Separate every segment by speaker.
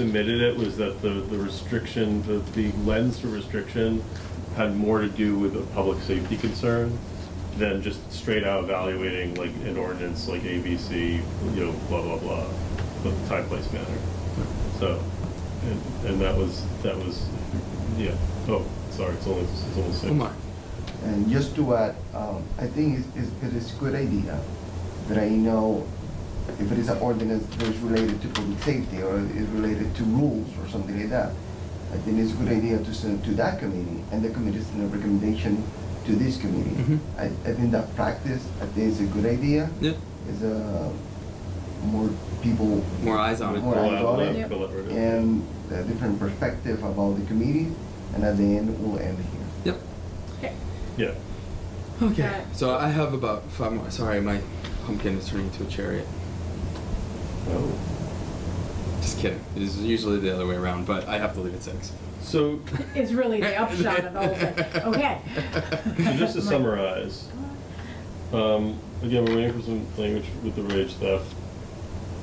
Speaker 1: submitted it was that the, the restriction, the, the lens to restriction had more to do with a public safety concern than just straight out evaluating like an ordinance like ABC, you know, blah, blah, blah, with time, place, manner. So, and, and that was, that was, yeah, oh, sorry, it's only, it's only six.
Speaker 2: Omar.
Speaker 3: And just to add, um, I think it's- it's- it is a good idea that I know if it is an ordinance that is related to public safety or is related to rules or something like that, I think it's a good idea to send to that committee and the committee send a recommendation to this
Speaker 2: Mhm.
Speaker 3: committee. I, I think that practice, I think it's a good idea.
Speaker 2: Yeah.
Speaker 3: It's a, more people.
Speaker 2: More eyes on it.
Speaker 3: More eyes on it.
Speaker 1: Go out, go out, go out.
Speaker 3: And a different perspective about the committee and at the end, we'll end here.
Speaker 2: Yep.
Speaker 4: Okay.
Speaker 1: Yeah.
Speaker 2: Okay.
Speaker 4: Okay.
Speaker 2: So I have about five more. Sorry, my pumpkin is turning into a chariot.
Speaker 1: Oh.
Speaker 2: Just kidding. It's usually the other way around, but I have to leave at six.
Speaker 1: So,
Speaker 4: Is really the upshot of the whole thing. Okay.
Speaker 1: so just to
Speaker 4: Like-
Speaker 1: summarize, um, again, we're waiting for some language with the rage theft.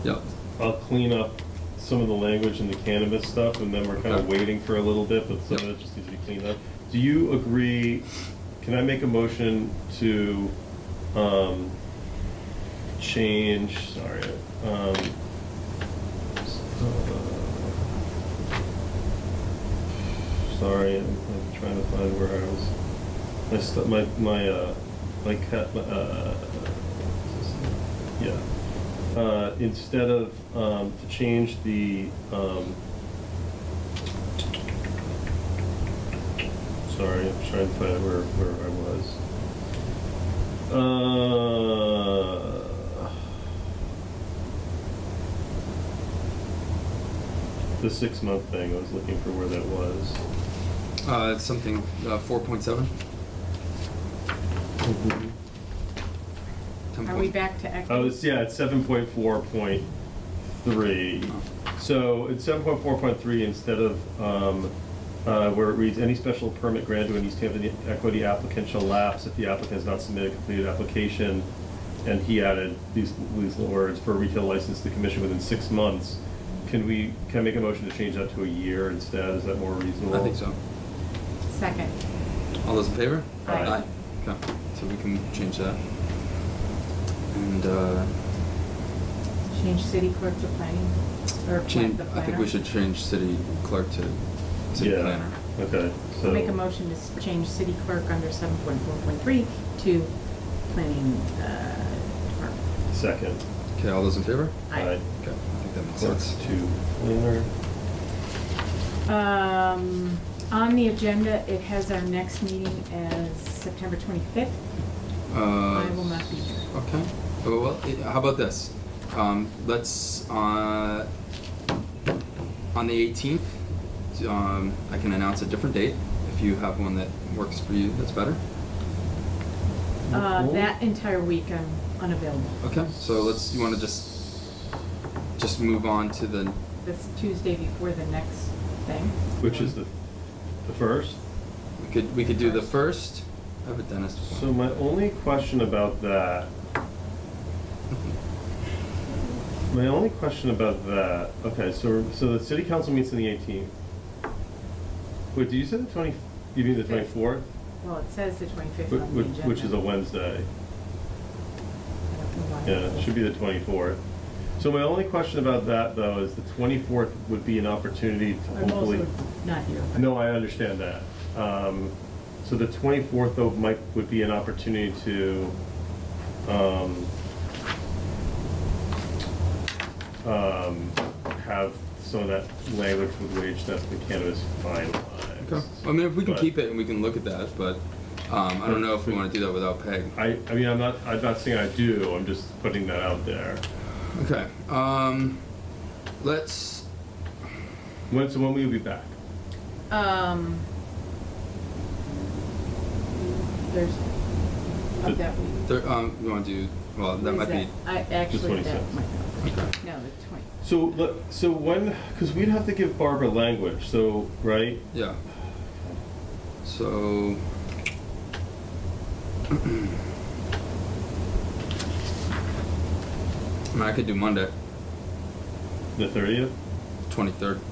Speaker 2: Yep.
Speaker 1: I'll clean up some of the language and the cannabis stuff, and then we're kind
Speaker 2: Okay.
Speaker 1: of waiting for a little bit, but some of
Speaker 2: Yep.
Speaker 1: it just needs to be cleaned up. Do you agree, can I make a motion to, um, change, sorry, um, s- uh, sorry, I'm I'm trying to find where I was, my, stu- my, my, uh, my cat, uh, yeah uh, instead of, um, to change the, um, sorry, I'm trying to find where, where I was. Uh, Uh, the six month thing, I was looking for where that was.
Speaker 2: Uh, it's something uh, four point seven.
Speaker 4: Mm-hmm. Are we back to equity?
Speaker 1: Oh, it's, yeah, it's seven point four point three. So it's seven point four point three instead of, um, uh, where it reads, any special permit granted to an East Hampton equity applicant shall lapse if the applicant has not submitted a completed application. And he added these, these little words, for a retail license to commission within six months. Can we, can I make a motion to change that to a year instead? Is that more reasonable?
Speaker 2: I think so.
Speaker 4: Second.
Speaker 2: All those in favor?
Speaker 4: Aye.
Speaker 2: Aye. Okay. So we can change that. And uh,
Speaker 4: Change city clerk to planning, or plan-
Speaker 2: change.
Speaker 4: the
Speaker 2: I think
Speaker 4: planner.
Speaker 2: we should change city clerk to city
Speaker 1: Yeah,
Speaker 2: planner.
Speaker 1: okay, so.
Speaker 4: I'll Make a motion to s- change city clerk under seven point four point three to planning, uh, department.
Speaker 1: Second.
Speaker 2: Okay. All those in favor?
Speaker 4: Aye.
Speaker 2: Okay. I think that makes
Speaker 1: Clerk
Speaker 2: sense.
Speaker 1: to planner.
Speaker 4: Um, on the agenda, it has our next meeting as September twenty-fifth.
Speaker 2: Uh,
Speaker 4: I will not be here.
Speaker 2: Okay. Oh, Well, eh, how about this? Um, let's, uh, on the eighteenth, um, I can announce a different date. If you have one that works for you, that's better.
Speaker 4: Uh,
Speaker 1: Cool.
Speaker 4: that entire week I'm unavailable.
Speaker 2: Okay, so let's, you wanna just, just move on to the,
Speaker 4: That's Tuesday before the next thing.
Speaker 1: Which is the, the first?
Speaker 2: we could, we could do the first. I have a dentist
Speaker 1: So
Speaker 2: appointment.
Speaker 1: my only question about that, my only question about that, okay, so, so the city council meets on the eighteenth. Wait, do you say the twenty, you mean the
Speaker 4: Fifth.
Speaker 1: twenty-fourth?
Speaker 4: Well, it says the twenty-fifth
Speaker 1: Which,
Speaker 4: on the agenda.
Speaker 1: which is a Wednesday,
Speaker 4: I don't know why.
Speaker 1: yeah, it should be the twenty-fourth. So my only question about that though is the twenty-fourth would be an opportunity to
Speaker 4: I'm
Speaker 1: hopefully.
Speaker 4: also not here. but-
Speaker 1: No, I understand that. Um, so the twenty-fourth though might, would be an opportunity to, um, um, have some of that language with wage theft and cannabis finalized.
Speaker 2: Okay, I mean, if we can
Speaker 1: But
Speaker 2: keep it and we can look at that, but, um, I don't know if we wanna do that without Peg.
Speaker 1: I, I mean, I'm not, I'm not saying I do, I'm just putting that out there.
Speaker 2: Okay, um, let's,
Speaker 1: When, so when will you be back?
Speaker 4: Um, there's,
Speaker 1: The-
Speaker 4: of that week.
Speaker 2: There, um, you wanna do, well, that
Speaker 4: What
Speaker 2: might
Speaker 4: is
Speaker 2: be,
Speaker 4: I, actually, that
Speaker 1: 26th.
Speaker 4: might not.
Speaker 2: Okay.
Speaker 4: No, the twenty.
Speaker 1: So, let- so when, because we'd have to give Barbara language, so, right?
Speaker 2: yeah. So. I mean, I could do Monday,
Speaker 1: The thirtieth?
Speaker 2: twenty-third.